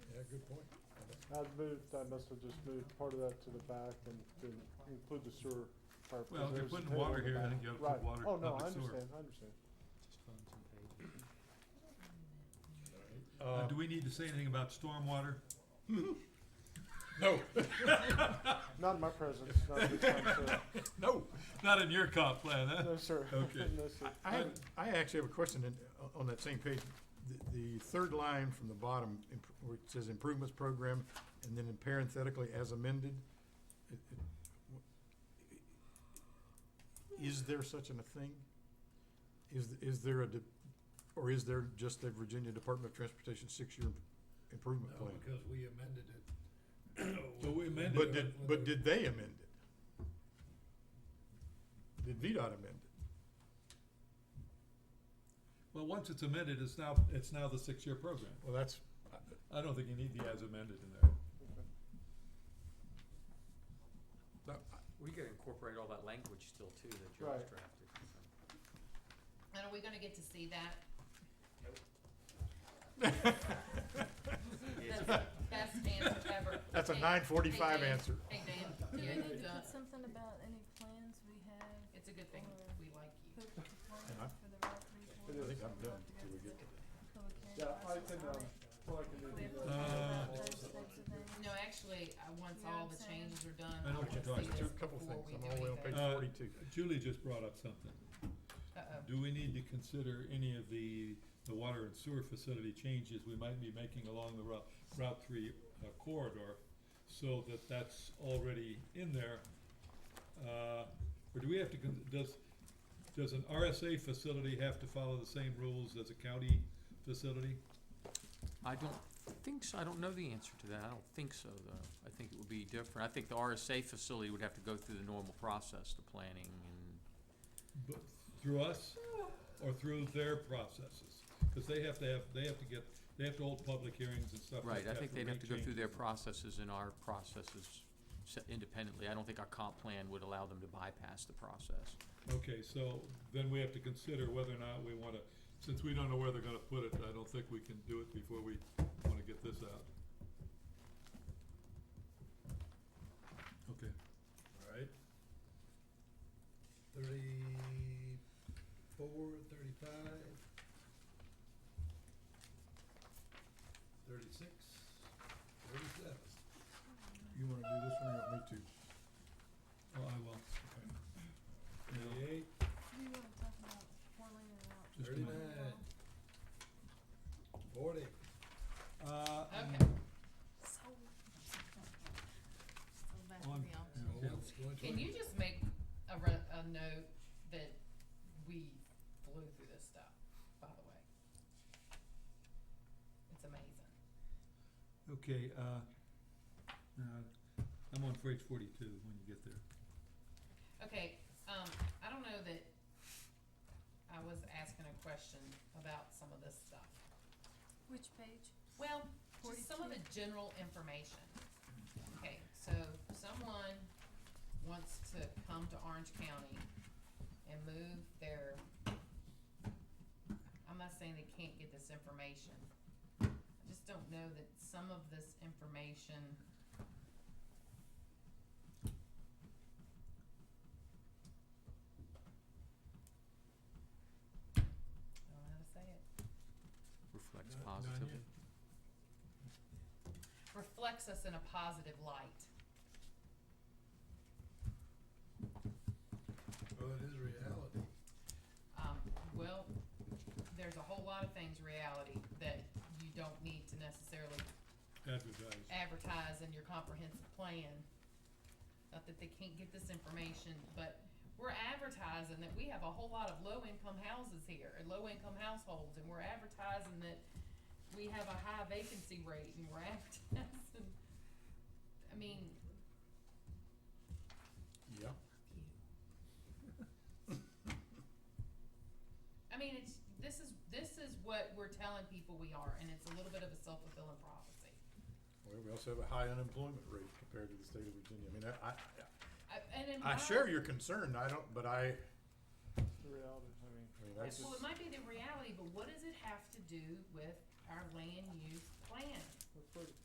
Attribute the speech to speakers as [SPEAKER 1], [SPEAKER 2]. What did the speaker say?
[SPEAKER 1] good point.
[SPEAKER 2] I'd moved, I must have just moved part of that to the back and didn't include the sewer part.
[SPEAKER 3] Well, if you're
[SPEAKER 2] because there's a
[SPEAKER 3] putting
[SPEAKER 2] table
[SPEAKER 3] water
[SPEAKER 2] in the
[SPEAKER 3] here, I
[SPEAKER 2] back.
[SPEAKER 3] think you ought to put
[SPEAKER 2] Right.
[SPEAKER 3] water,
[SPEAKER 2] Oh, no, I
[SPEAKER 3] public sewer.
[SPEAKER 2] understand, I understand.
[SPEAKER 4] Just find some pages.
[SPEAKER 3] Uh, do we need to say anything about stormwater?
[SPEAKER 1] No,
[SPEAKER 2] Not in my presence, not this time, sir.
[SPEAKER 1] no.
[SPEAKER 3] Not in your comp plan, huh?
[SPEAKER 2] No, sir.
[SPEAKER 3] Okay.
[SPEAKER 2] No, sir.
[SPEAKER 1] I have, I actually have a question in- uh, on that same page. The- The third line from the bottom, imp- where it says improvements program, and then in parenthetically, as amended. it- it- wh- Is there such an a thing? Is, is there a, de- or is there just a Virginia Department of Transportation six-year improvement
[SPEAKER 5] No,
[SPEAKER 1] plan?
[SPEAKER 5] because we amended it.
[SPEAKER 3] So we amended
[SPEAKER 1] But
[SPEAKER 3] it.
[SPEAKER 1] did, but did they amend it? Did VDOT amend it?
[SPEAKER 3] Well, once it's amended, it's now, it's now the six-year program.
[SPEAKER 1] Well, that's,
[SPEAKER 3] I don't think you need the as amended in there.
[SPEAKER 6] We could incorporate all that language still too that George
[SPEAKER 2] Right.
[SPEAKER 6] drafted. so.
[SPEAKER 7] And are we gonna get to see that? That's the best answer ever.
[SPEAKER 1] That's a
[SPEAKER 7] Hey,
[SPEAKER 1] 9:45
[SPEAKER 7] hey, Dan.
[SPEAKER 1] answer.
[SPEAKER 7] Hey, Dan,
[SPEAKER 8] Did
[SPEAKER 7] yeah,
[SPEAKER 8] I
[SPEAKER 7] you
[SPEAKER 8] need to
[SPEAKER 7] got
[SPEAKER 8] put
[SPEAKER 7] it.
[SPEAKER 8] something about Uh, any plans we have?
[SPEAKER 7] it's a good thing, we like you.
[SPEAKER 8] Put the
[SPEAKER 1] I-
[SPEAKER 8] plans for the rock
[SPEAKER 2] It
[SPEAKER 1] I
[SPEAKER 2] is.
[SPEAKER 8] report.
[SPEAKER 1] think I'm done until we get to
[SPEAKER 8] public hearing
[SPEAKER 2] Yeah, I
[SPEAKER 8] process
[SPEAKER 2] can,
[SPEAKER 8] on
[SPEAKER 2] um,
[SPEAKER 8] it.
[SPEAKER 2] well, I can do
[SPEAKER 8] We have to
[SPEAKER 2] the,
[SPEAKER 8] talk
[SPEAKER 2] uh,
[SPEAKER 8] about those types of things.
[SPEAKER 7] No, actually, uh, once
[SPEAKER 8] You know
[SPEAKER 7] all
[SPEAKER 8] what
[SPEAKER 7] the
[SPEAKER 8] I'm saying?
[SPEAKER 7] changes are done,
[SPEAKER 3] I
[SPEAKER 7] I
[SPEAKER 3] know what you're
[SPEAKER 7] wanna see
[SPEAKER 3] talking
[SPEAKER 1] that.
[SPEAKER 3] about.
[SPEAKER 1] Two,
[SPEAKER 7] this
[SPEAKER 1] couple
[SPEAKER 7] before
[SPEAKER 1] things,
[SPEAKER 7] we
[SPEAKER 1] I'm
[SPEAKER 7] do
[SPEAKER 1] all the way on page
[SPEAKER 7] anything.
[SPEAKER 3] Uh,
[SPEAKER 1] forty-two.
[SPEAKER 3] Julie just brought up something.
[SPEAKER 7] Uh-oh,
[SPEAKER 3] Do we need to consider any of the, the water and sewer facility changes we might be making along the Route, Route Three uh, corridor? So that that's already in there? Uh, or do we have to, con- does, does an RSA facility have to follow the same rules as a county facility?
[SPEAKER 6] I don't think so, I don't know the answer to that, I don't think so though. I think it would be different. I think the RSA facility would have to go through the normal process, the planning and
[SPEAKER 3] But through us or through their processes? Because they have to have, they have to get, they have to hold public hearings and stuff like
[SPEAKER 6] Right,
[SPEAKER 3] that.
[SPEAKER 6] I think
[SPEAKER 3] for
[SPEAKER 6] they'd have to go through their
[SPEAKER 3] changes.
[SPEAKER 6] processes and our processes se- independently. I don't think our comp plan would allow them to bypass the process.
[SPEAKER 3] Okay, so then we have to consider whether or not we want to, since we don't know where they're going to put it, I don't think we can do it before we want to get this out. Okay.
[SPEAKER 5] All right. Thirty-four, thirty-five. Thirty-six, thirty-seven.
[SPEAKER 1] You wanna do this one or you want me to?
[SPEAKER 3] Oh, I will. Yeah.
[SPEAKER 5] Thirty-eight,
[SPEAKER 8] Do you wanna talk about four lane and route?
[SPEAKER 3] Just a minute.
[SPEAKER 5] thirty-nine, forty.
[SPEAKER 3] Uh,
[SPEAKER 7] okay,
[SPEAKER 8] So. Still back to
[SPEAKER 3] On-
[SPEAKER 8] the office.
[SPEAKER 5] So
[SPEAKER 3] Yeah.
[SPEAKER 5] what's going to-
[SPEAKER 7] can you just make a re- a note that we flew through this stuff, by the way? It's amazing.
[SPEAKER 3] Okay, uh, uh, I'm on page forty-two when you get there.
[SPEAKER 7] Okay, um, I don't know that, I was asking a question about some of this stuff.
[SPEAKER 8] Which page?
[SPEAKER 7] Well, just some of the general information. Okay, so someone wants to come to Orange County and move their, I'm not saying they can't get this information. I just don't know that some of this information I don't know how to say it.
[SPEAKER 6] Reflects
[SPEAKER 1] Not- not
[SPEAKER 6] positively.
[SPEAKER 1] yet.
[SPEAKER 7] reflects us in a positive light.
[SPEAKER 5] Well, Oh, it is reality.
[SPEAKER 7] Um, well, there's a whole lot of things reality that you don't need to necessarily
[SPEAKER 3] Advertise.
[SPEAKER 7] advertise in your comprehensive plan. Not that they can't get this information, but we're advertising that we have a whole lot of low-income houses here, and low-income households, and we're advertising that we have a high vacancy rate, and we're advertising, I mean,
[SPEAKER 1] Yeah.
[SPEAKER 7] I mean, it's, this is, this is what we're telling people we are, and it's a little bit of a self-fulfilling prophecy.
[SPEAKER 1] Well, we also have a high unemployment rate compared to the state of Virginia. I mean, I, I,
[SPEAKER 7] I- And in
[SPEAKER 1] I
[SPEAKER 7] my-
[SPEAKER 1] share your concern, I don't, but I,
[SPEAKER 2] The reality, I mean,
[SPEAKER 1] I mean,
[SPEAKER 7] Well,
[SPEAKER 1] that's just.
[SPEAKER 7] it might be the reality, but what does it have to do with our land use plan?
[SPEAKER 2] we're pretty-